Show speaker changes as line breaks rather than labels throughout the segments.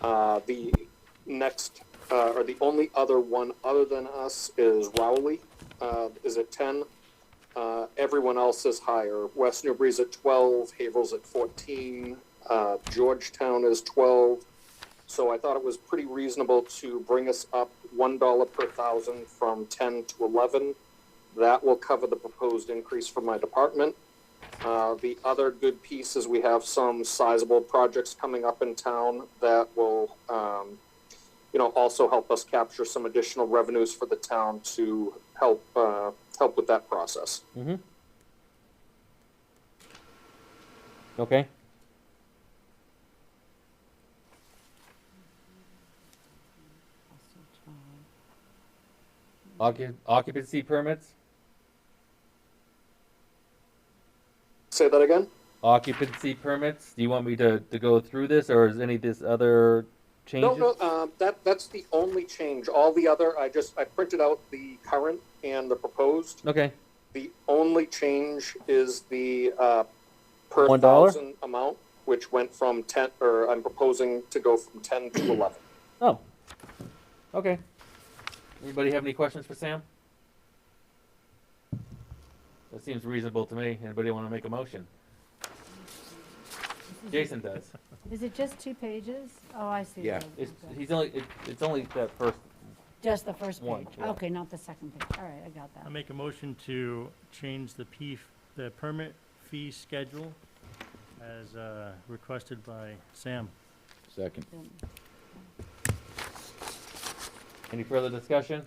Uh, the next, uh, or the only other one other than us is Rowley, uh, is at ten. Uh, everyone else is higher. West Newbury's at twelve, Haver's at fourteen, uh, Georgetown is twelve. So I thought it was pretty reasonable to bring us up one dollar per thousand from ten to eleven. That will cover the proposed increase for my department. Uh, The other good piece is we have some sizable projects coming up in town that will, um, you know, also help us capture some additional revenues for the town to help, uh, help with that process.
Okay. Occu- Occupancy permits?
Say that again?
Occupancy permits? Do you want me to, to go through this or is any of this other
No,
changes?
no, uh, that, that's the only change. All the other, I just, I printed out the current and the proposed.
Okay,
The only change is the, uh, per
One dollar?
thousand amount, which went from ten, or I'm proposing to go from ten to eleven.
oh, okay. Anybody have any questions for Sam? That seems reasonable to me. Anybody want to make a motion? Jason does.
Is it just two pages? Oh, I see.
Yeah.
what it is,
It's,
okay.
he's only, it- it's only that first,
Just the first
One,
page.
yeah.
Okay, not the second page. All right, I got
I
that.
make a motion to change the P, the permit fee schedule as uh, requested by Sam.
Second.
Then-
any further discussion?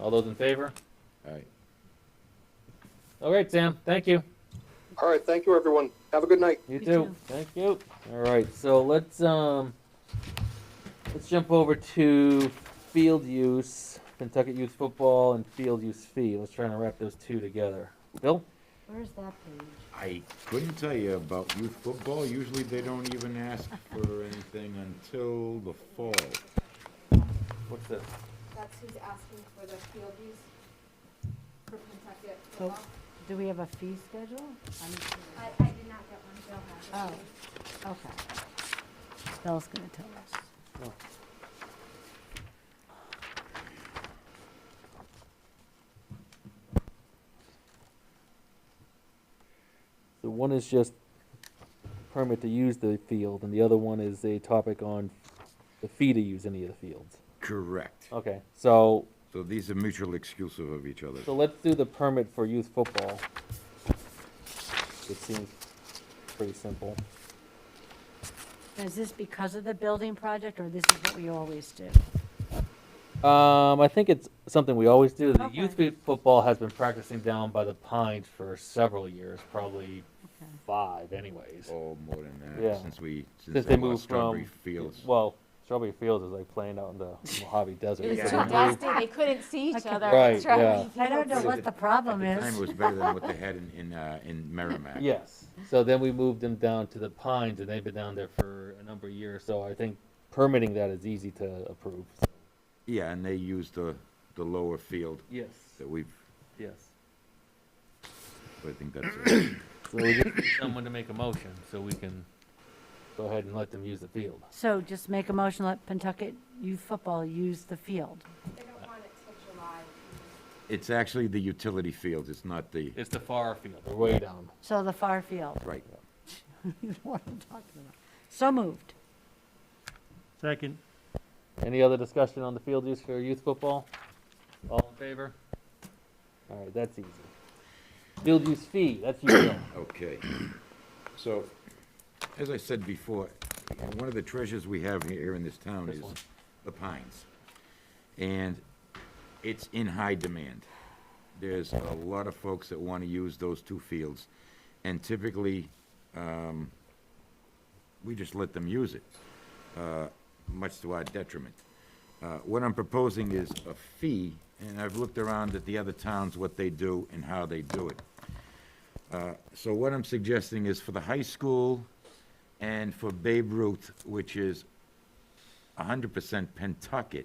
All those in favor?
All right.
All right, Sam, thank you.
All right, thank you, everyone. Have a good night.
You
Me
too.
too.
Thank you. All right, so let's um, let's jump over to field use, Kentucky youth football, and field use fee. Let's try and wrap those two together. Bill,
Where's that page?
I couldn't tell you about youth football. Usually they don't even ask for anything until the fall.
what's this?
That's who's asking for the field use for Pennsylkill
Oh.
football.
Do we have a fee schedule? I'm sure.
I, I did not get one, so.
Oh, okay. Bill's gonna tell us.
So one is just permit to use the field, and the other one is a topic on the fee to use any of the fields.
Correct.
Okay, so
So these are mutually exclusive of each other.
So let's do the permit for youth football. It seems pretty simple.
Is this because of the building project, or this is what we always do?
Um, I think it's something we always do. The
Okay.
youth fo- football has been practicing down by the pines for several years, probably
Okay.
five anyways.
Oh, more than
Yeah.
that, since we,
Since
since
they
I lost
moved
Strawberry
from,
Fields.
well, Strawberry Fields is like playing out in the Mojave Desert.
It
so
was
they
too
moved-
dusty, they couldn't see each
Okay.
other.
Right,
It's right.
yeah.
I don't know
Is
what
it-
the problem
At the time, it
is.
was better than what they had in, in, uh, in Merrimack.
Yes, so then we moved them down to the pines and they've been down there for a number of years, so I think permitting that is easy to approve.
Yeah, and they used the, the lower field
Yes,
that we've,
yes.
I think that's,
So we just need someone to make a motion so we can go ahead and let them use the field.
So just make a motion, let Pentucket youth football use the field.
They don't want it till July.
it's actually the utility fields, it's not the,
It's the far field. They're way down.
So the far field.
right.
You know what I'm talking about. So moved.
Second,
Any other discussion on the field use for youth football? All in favor? All right, that's easy. Field use fee, that's you, Bill.
Okay. So, as I said before, one of the treasures we have here in this town
This
is
one.
the pines. And it's in high demand. There's a lot of folks that want to use those two fields, and typically, um, we just let them use it, uh, much to our detriment. Uh, What I'm proposing is a fee, and I've looked around at the other towns, what they do and how they do it. So what I'm suggesting is for the high school and for Babe Ruth, which is hundred percent Pentucket,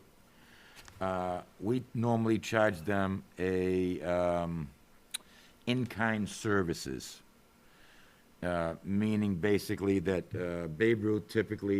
uh, we normally charge them a, um, in-kind services. Uh, meaning basically that, uh, Babe Ruth typically